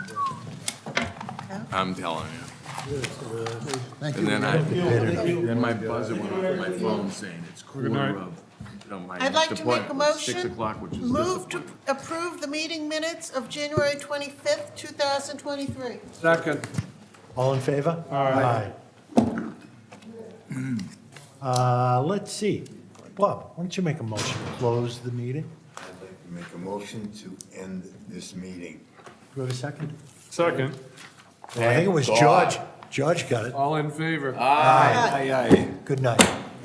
I'm telling you. Thank And you. then I, then my buzzer went off on my phone saying it's quarter of, you know, my I'd like to make a appointment was Six motion. o'clock, which is Move to disappointing. approve the meeting minutes of January 25th, 2023. Second. All in favor? Aye. Uh, Let's see. Bob, why don't you make a motion to close the meeting? I'd like to Make a motion to end this meeting. Do we have a second? Second. Well, I think it was Thank God. George. George got it. All in favor? Aye. Good night.